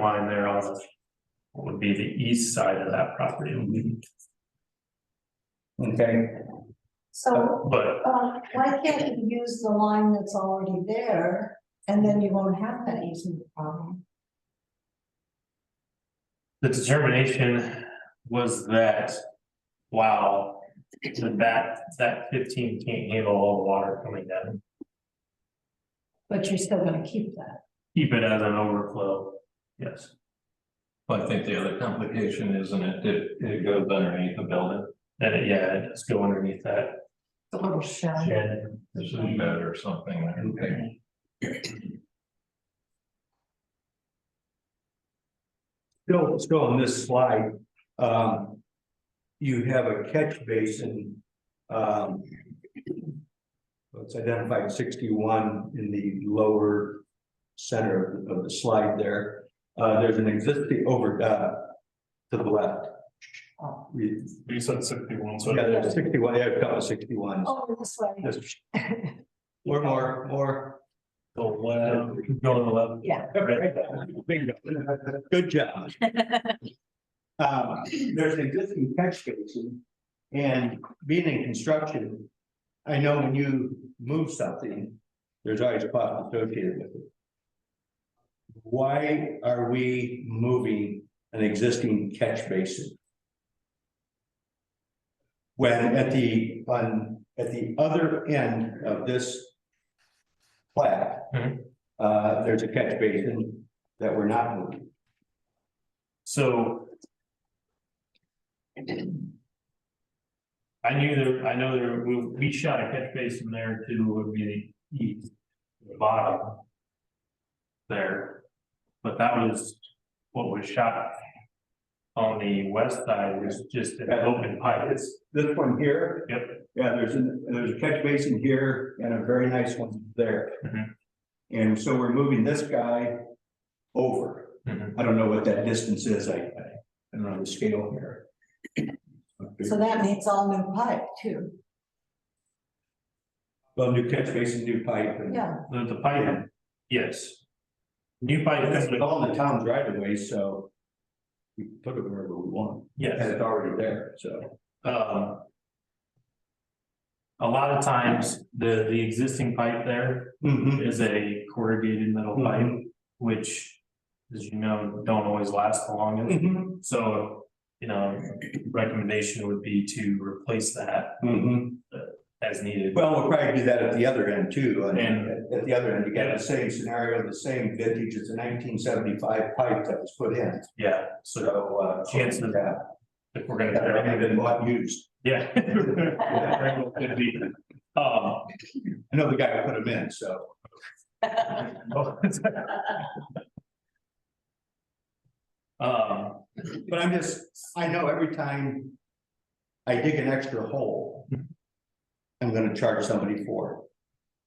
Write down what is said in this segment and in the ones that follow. line there on the, what would be the east side of that property. Okay, So, But um, why can't you use the line that's already there, and then you won't have that easement problem? the determination was that, wow, that, that fifteen can't handle all the water coming down. But you're still gonna keep that. Keep it as an overflow, yes. Well, I think the other complication isn't it, it, it goes underneath the building, And it- yeah, it does go underneath that The little shed. shed. this is bed or something. I don't think. still, still on this slide, um, you have a catch basin, um, it's identified sixty-one in the lower center of the slide there. Uh, there's an existing over, uh, to the left. Oh, We, You said sixty-one, yeah, there's sixty-one, yeah, a couple of sixty-ones. Over oh, this way, There's- More, more, more. Go left, go to the left. yeah. Right. Bingo. Good job. Um, there's an existing catch basin and being in construction, I know when you move something, there's always cost associated with it. Why are we moving an existing catch basin? When at the, on, at the other end of this plat, uh, there's a catch basin that we're not moving. So. I knew there, I know there, we, we shot a catch basin there too, would be the east, the bottom. There, but that was what was shot. On the west side was just an open pipe, It's this one here. Yep. Yeah, there's a, there's a catch basin here and a very nice one there. Mhm. And so we're moving this guy over. Mhm. I don't know what that distance is. I, I I don't know the scale here. So that needs all new pipe too, Well, new catch basin, new pipe and. yeah. the, the pipe, yes. New pipe, That's with all the town's right of ways, so. We can put it wherever we want. yes. And it's already there, so. um. A lot of times, the, the existing pipe there is a corrugated metal Mm-hmm. pipe, which, as you know, don't always last the longest. Mhm. So, you know, recommendation would be to replace that Mhm. as needed. Well, we'll probably do that at the other end too, and And- at- at the other end, you got the same scenario, the same vintage as the nineteen seventy-five pipe that was put in, Yeah, so so, uh. Chances of- Yeah, if we're gonna. that tear it haven't up, been bought used, Yeah. Very well could be. Um, I know the guy who put them in, so. um, But I'm just, I know every time I dig an extra hole, I'm gonna charge somebody for it.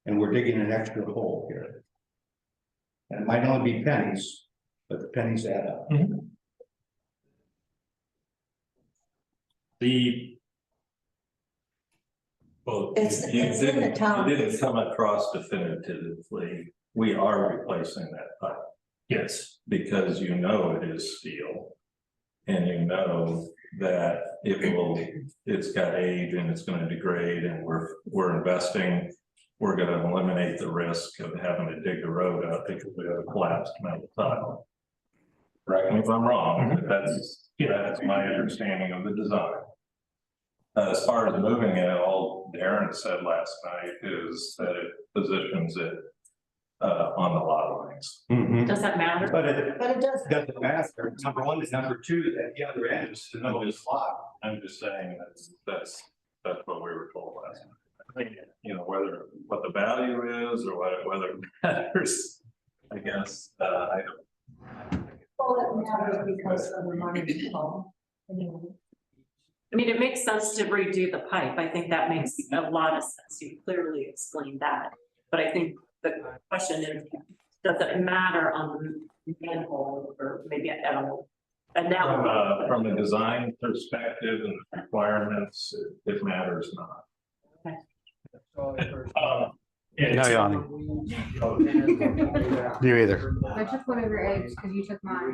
And we're digging an extra hole here. And it might only be pennies, but the pennies add up. the, Well, you- It's- you it's in the didn't- town. You didn't come across definitively, we are replacing that pipe yes, because you know it is steel. And you know that it will, it's got age and it's gonna degrade and we're, we're investing. We're gonna eliminate the risk of having to dig the road out because we have a collapsed metal tile. Correct me if I'm wrong, but that's, that's my understanding of the design. Uh, As far as moving it, all Darren said last night is that it positions it uh, on the lot lines. Does that matter? But it But it doesn't, doesn't matter, number one is number two, at the other end is another slot. I'm just saying that's, that's, that's what we were told last night. You know, whether, what the value is or whether, whether it matters, I guess, uh, I don't. well, it matters because of the money involved. Anyway. I mean, it makes sense to redo the pipe. I think that makes a lot of sense. You clearly explained that. But I think the question is, does it matter on the manhole or maybe, I don't know. And From now, a, from a design perspective and requirements, it- it matters not. um, yeah, No yawning. You either. I took one of your eggs because you took mine.